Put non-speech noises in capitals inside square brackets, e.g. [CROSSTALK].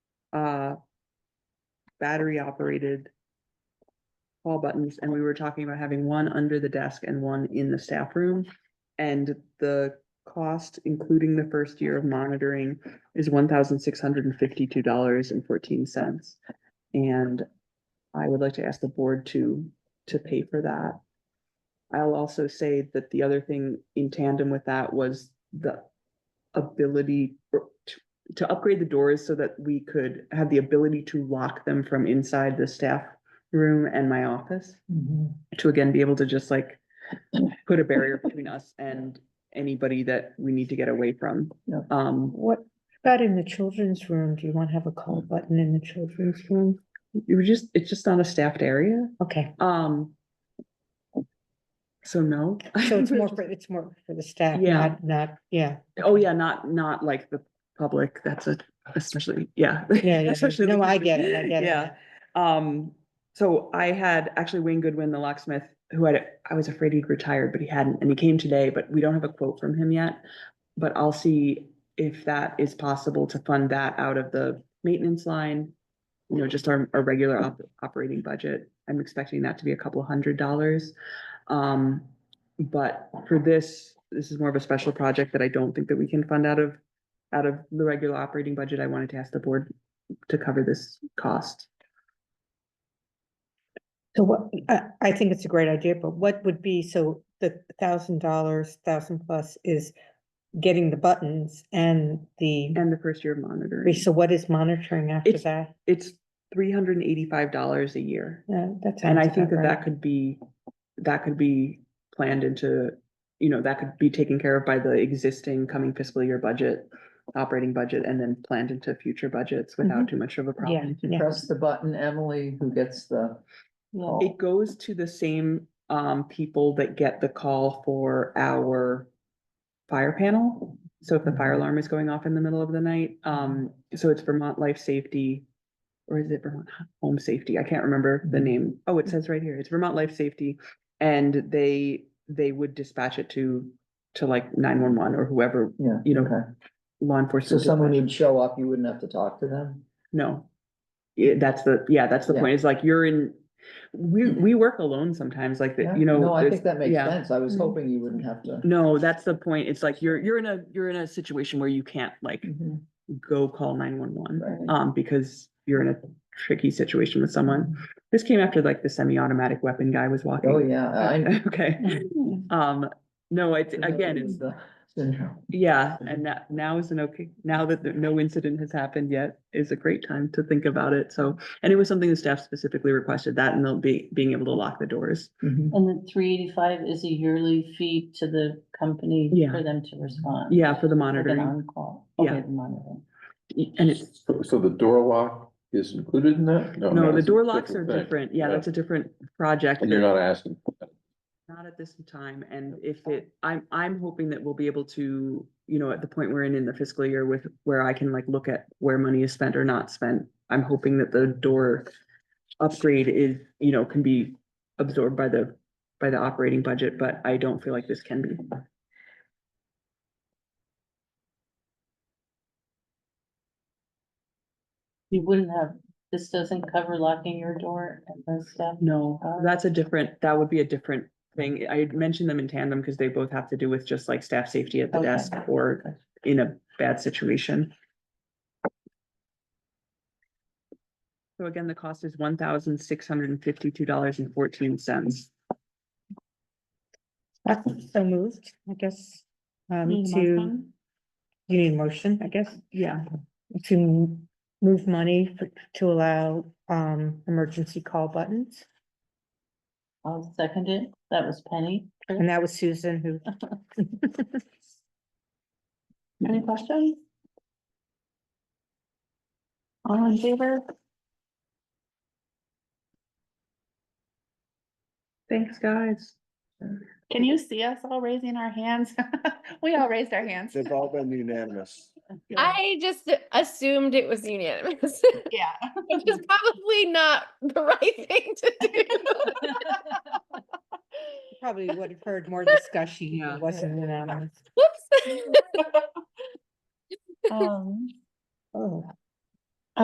uh, battery operated. Call buttons and we were talking about having one under the desk and one in the staff room. And the cost, including the first year of monitoring, is one thousand six hundred and fifty-two dollars and fourteen cents. And I would like to ask the board to, to pay for that. I'll also say that the other thing in tandem with that was the ability for- to, to upgrade the doors so that we could have the ability to lock them from inside the staff room and my office to again be able to just like put a barrier between us and anybody that we need to get away from. Yeah. Um, What about in the children's room? Do you want to have a Mm. call button in the children's room? it was just, it's just not a staffed area. [LAUGHS] Okay, Um. So no. so it's more for, it's more for the staff, Yeah. not, not, yeah, [LAUGHS] Oh, yeah, not, not like the public, that's a, especially, yeah. yeah, yeah. especially No, the- I get it, I get it. Yeah, um, so I had actually Wayne Goodwin, the locksmith, who had, I was afraid he'd retired, but he hadn't, and he came today, but we don't have a quote from him yet. But I'll see if that is possible to fund that out of the maintenance line. You know, just our, our regular op- operating budget. I'm expecting that to be a couple hundred dollars. Um, but for this, this is more of a special project that I don't think that we can fund out of, out of the regular operating budget. I wanted to ask the board to cover this cost. So what, I, I think it's a great idea, but what would be, so the thousand dollars, thousand plus is getting the buttons and the, And the first year of monitoring, so what is monitoring after It's- that? it's three hundred and eighty-five dollars a year. Yeah, that And I sounds think that about that right. could be, that could be planned into, you know, that could be taken care of by the existing coming fiscal year budget, operating budget, and then planned into future budgets without too much of a Mm-hmm. Yeah, problem. yeah, Press the button, Emily, who gets the It call. goes to the same, um, people that get the call for our fire panel. So if the fire Mhm. alarm is going off in the middle of the night, um, so it's Vermont Life Safety. Or is it Vermont Home Safety? I can't remember the Mhm. name. Oh, it says right here. It's Vermont Life Safety. And they, they would dispatch it to, to like nine one one or whoever, Yeah, you know, okay. law So enforcement. someone would show up, you wouldn't have to talk to them? No. Yeah, that's the, yeah, that's the Yeah. Mm-hmm. point. It's like you're in, we, we work alone sometimes like Yeah. that, you know. No, I it's- think that makes yeah. sense. I was Mhm. hoping you wouldn't have to. No, that's the point. It's like you're, you're in a, you're in a situation where you can't like Mhm, go call nine one one. right. Mm-hmm. Um, because you're in a tricky situation with someone. This came after like the semi-automatic weapon guy was walking. Oh, yeah. I- [LAUGHS] Okay, um, no, it's, Uh, [LAUGHS] again, it's, the Syndrome. yeah, Mm-hmm. and that now is an okay, now that the- no incident has happened yet is a great time to think about it. So, and it was something the staff specifically requested that and they'll be, being able to lock the doors. Mhm. And the three eighty-five is a yearly fee to the company Yeah. for them to respond? Yeah, for the Like an monitoring. on-call? Yeah. Okay, the monitoring. And it's, So- So the door lock is included in Oh, that? no, the that's a door locks are thing. different. Yeah, Yeah. that's a different project. And you're that- not asking, Not at this time, and if it, I'm, I'm hoping that we'll be able to, you know, at the point we're in in the fiscal year with, where I can like look at where money is spent or not spent. I'm hoping that the door upgrade is, you know, can be absorbed by the, by the operating budget, but I don't feel like this can be. You wouldn't have, this doesn't cover locking your door and those stuff? No, Uh, that's a different, that would be a different thing. I had mentioned them in tandem because they both have to do with just like staff safety at the Okay. desk or in a bad situation. So again, the cost is one thousand six hundred and fifty-two dollars and fourteen cents. So moved, I guess, um, Need a to, motion? you need a motion, I guess. Yeah, to m- move money for- to allow um emergency call buttons. I'll second it. That was Penny. And that was Susan who. Any questions? All in favor? thanks, guys. Can you see us all raising our hands? [LAUGHS] We all raised our hands. They've all been unanimous. [LAUGHS] I just assumed it was unanimous, Yeah. [LAUGHS] which is probably not the right thing to do. Probably would have heard more discussion. if it Yeah. Wasn't unanimous. Whoops. Um, Oh,